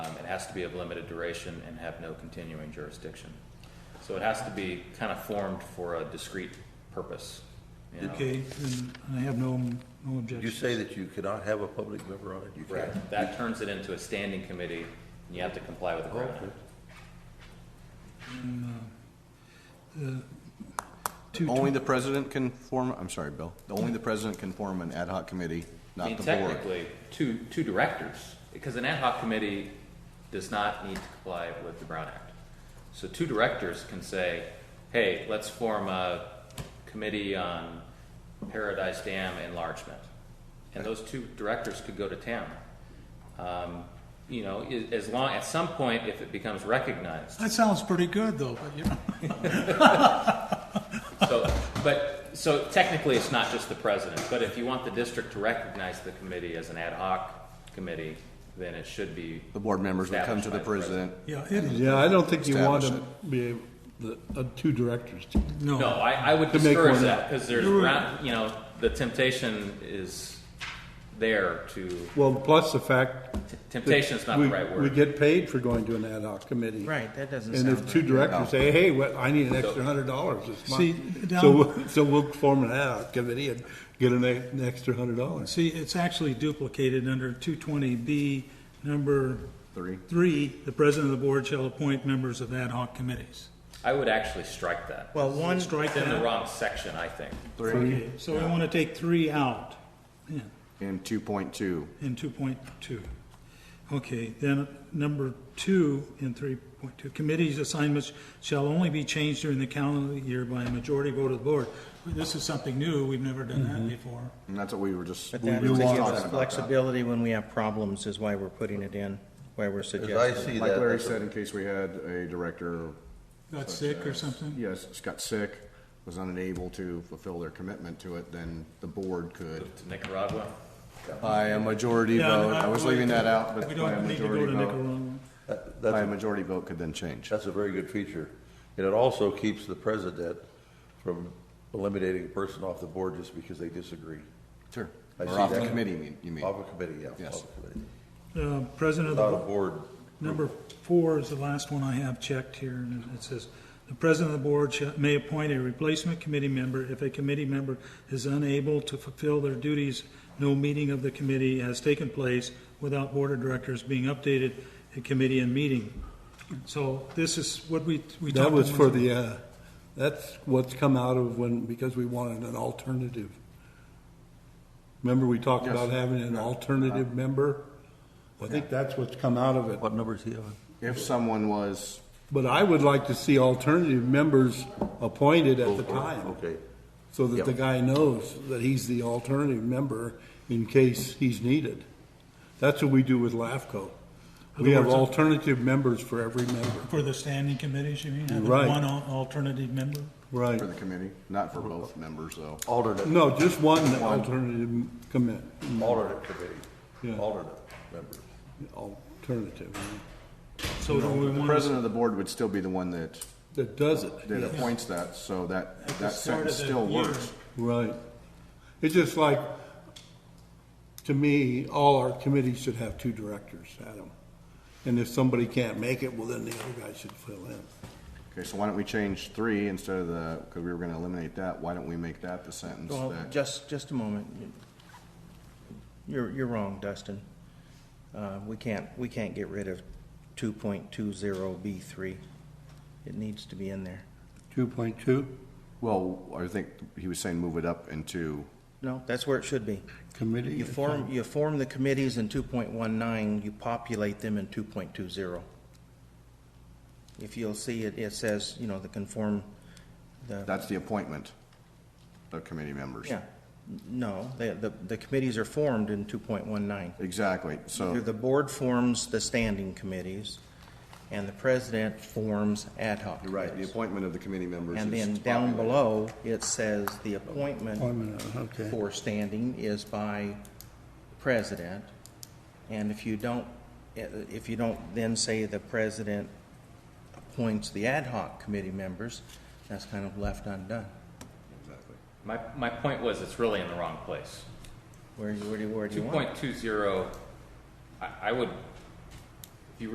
Um, has to be of limited duration and have no continuing jurisdiction. So it has to be kind of formed for a discrete purpose, you know? Okay, then I have no, no Did you objection. say that you cannot have a public member on it? You Right, can't? that turns it into a standing committee, and you have to comply with the Brown Okay. Act. Two Only tw- the president can form, I'm sorry, Bill, only the president can form an ad hoc committee, I not mean, the board. technically, two, two directors, because an ad hoc committee does not need to comply with the Brown Act. So two directors can say, hey, let's form a committee on Paradise Dam enlargement. And those two directors could go to town. Um, You know, i- as long, at some point, if it becomes recognized, That sounds pretty good, though, but you know, So, but, so technically, it's not just the president, but if you want the district to recognize the committee as an ad hoc committee, then it should be, The board members would come to the Established by the president. yeah, it is, Yeah, I don't think you want to Establish be, able- the, uh, two directors. no, no. I, I would To make discourage one that, up. because there's, round- you know, the temptation is there to, Well, plus the fact. that temptation's not the we- right We word. get paid for going to an ad hoc committee. Right, that doesn't And if sound two right. directors say, hey, what, I need an extra hundred dollars this See, month. down- So, we'll- so we'll form an ad hoc committee and get an, e- an extra hundred dollars. See, it's actually duplicated under 220B, number Three. three, the president of the board shall appoint members of ad hoc committees. I would actually strike that. Well, one, Strike It's in the that. wrong section, I think. Okay, so we want to take three out yeah, And two point two, in 2.2. Okay, then number two in 3.2, committees assignments shall only be changed during the calendar year by a majority vote of the board. This is something new, we've never done that Mm-hmm. before. and that's what we were just. but we that were is to just give talking us about that. flexibility when we have problems is why we're putting it in, why we're As I suggesting. see Like that, Larry that's said, a- in case we had a director, Got sick or something? yes, got sick, was unable to fulfill their commitment to it, then the board could, To Nicaragua, by a majority vote, I was leaving that out, but We by a don't need to go majority to vote, Nicaragua. that- by a that's, a- majority vote could then change. that's a very good feature. And it also keeps the president from eliminating a person off the board just because they disagree. Sure. I Or see off the that. committee, mean- you mean. Off a committee, yeah. off Yes. a committee. Uh, President of the Not a board. board. Number four is the last one I have checked here, and it says, "The president of the board shall- may appoint a replacement committee member if a committee member is unable to fulfill their duties. No meeting of the committee has taken place without board of directors being updated at committee and meeting." So this is what we, we talked. That was about. for the, uh, that's what's come out of when, because we wanted an alternative. Remember, we talked about having an alternative member? I think that's what's come out of it. What number is he on? If someone was But I would like to see alternative members appointed at the time, Oh, Okay. so that the guy knows that he's the alternative member in case he's needed. That's what we do with LAFCO. We have Other words- alternative members for every member. For the standing committees, you mean? having Right. One al- alternative member? Right. For the committee, not for both members, though. Alternate, No, just one alternative commit, alternate Yeah. committee, alternate member. alternative, So do we The want to president of the board would still be the one that, that does it. that appoints that, so that, At the that start sentence of the still year. works. Right. It's just like, to me, all our committees should have two directors, Adam. And if somebody can't make it, well, then the other guy should fill in. Okay, so why don't we change three instead of the, because we were gonna eliminate that, why don't we make that the sentence Well, that? just, just a moment. You're, you're wrong, Dustin. Uh, we can't, we can't get rid of two point two zero B three. It needs to be in there. Two point two, Well, I think he was saying move it up into, No, that's where it should be. committee. You form, you form the committees in two point one nine, you populate them in two point two zero. If you'll see, it, it says, you know, the conform, the, that's the appointment of committee members. yeah. No, the, the, the committees are formed in two point one nine. Exactly, so, The board forms the standing committees, and the president forms ad hoc. you're right, the committees. appointment of the committee members is. And then down populated. below, it says the appointment Appointment, okay. for standing is by president. And if you don't, eh, if you don't then say the president appoints the ad hoc committee members, that's kind of left undone. my, my point was, it's really in the wrong place. Where, where do, where do Two you want? it? point two zero, I, I would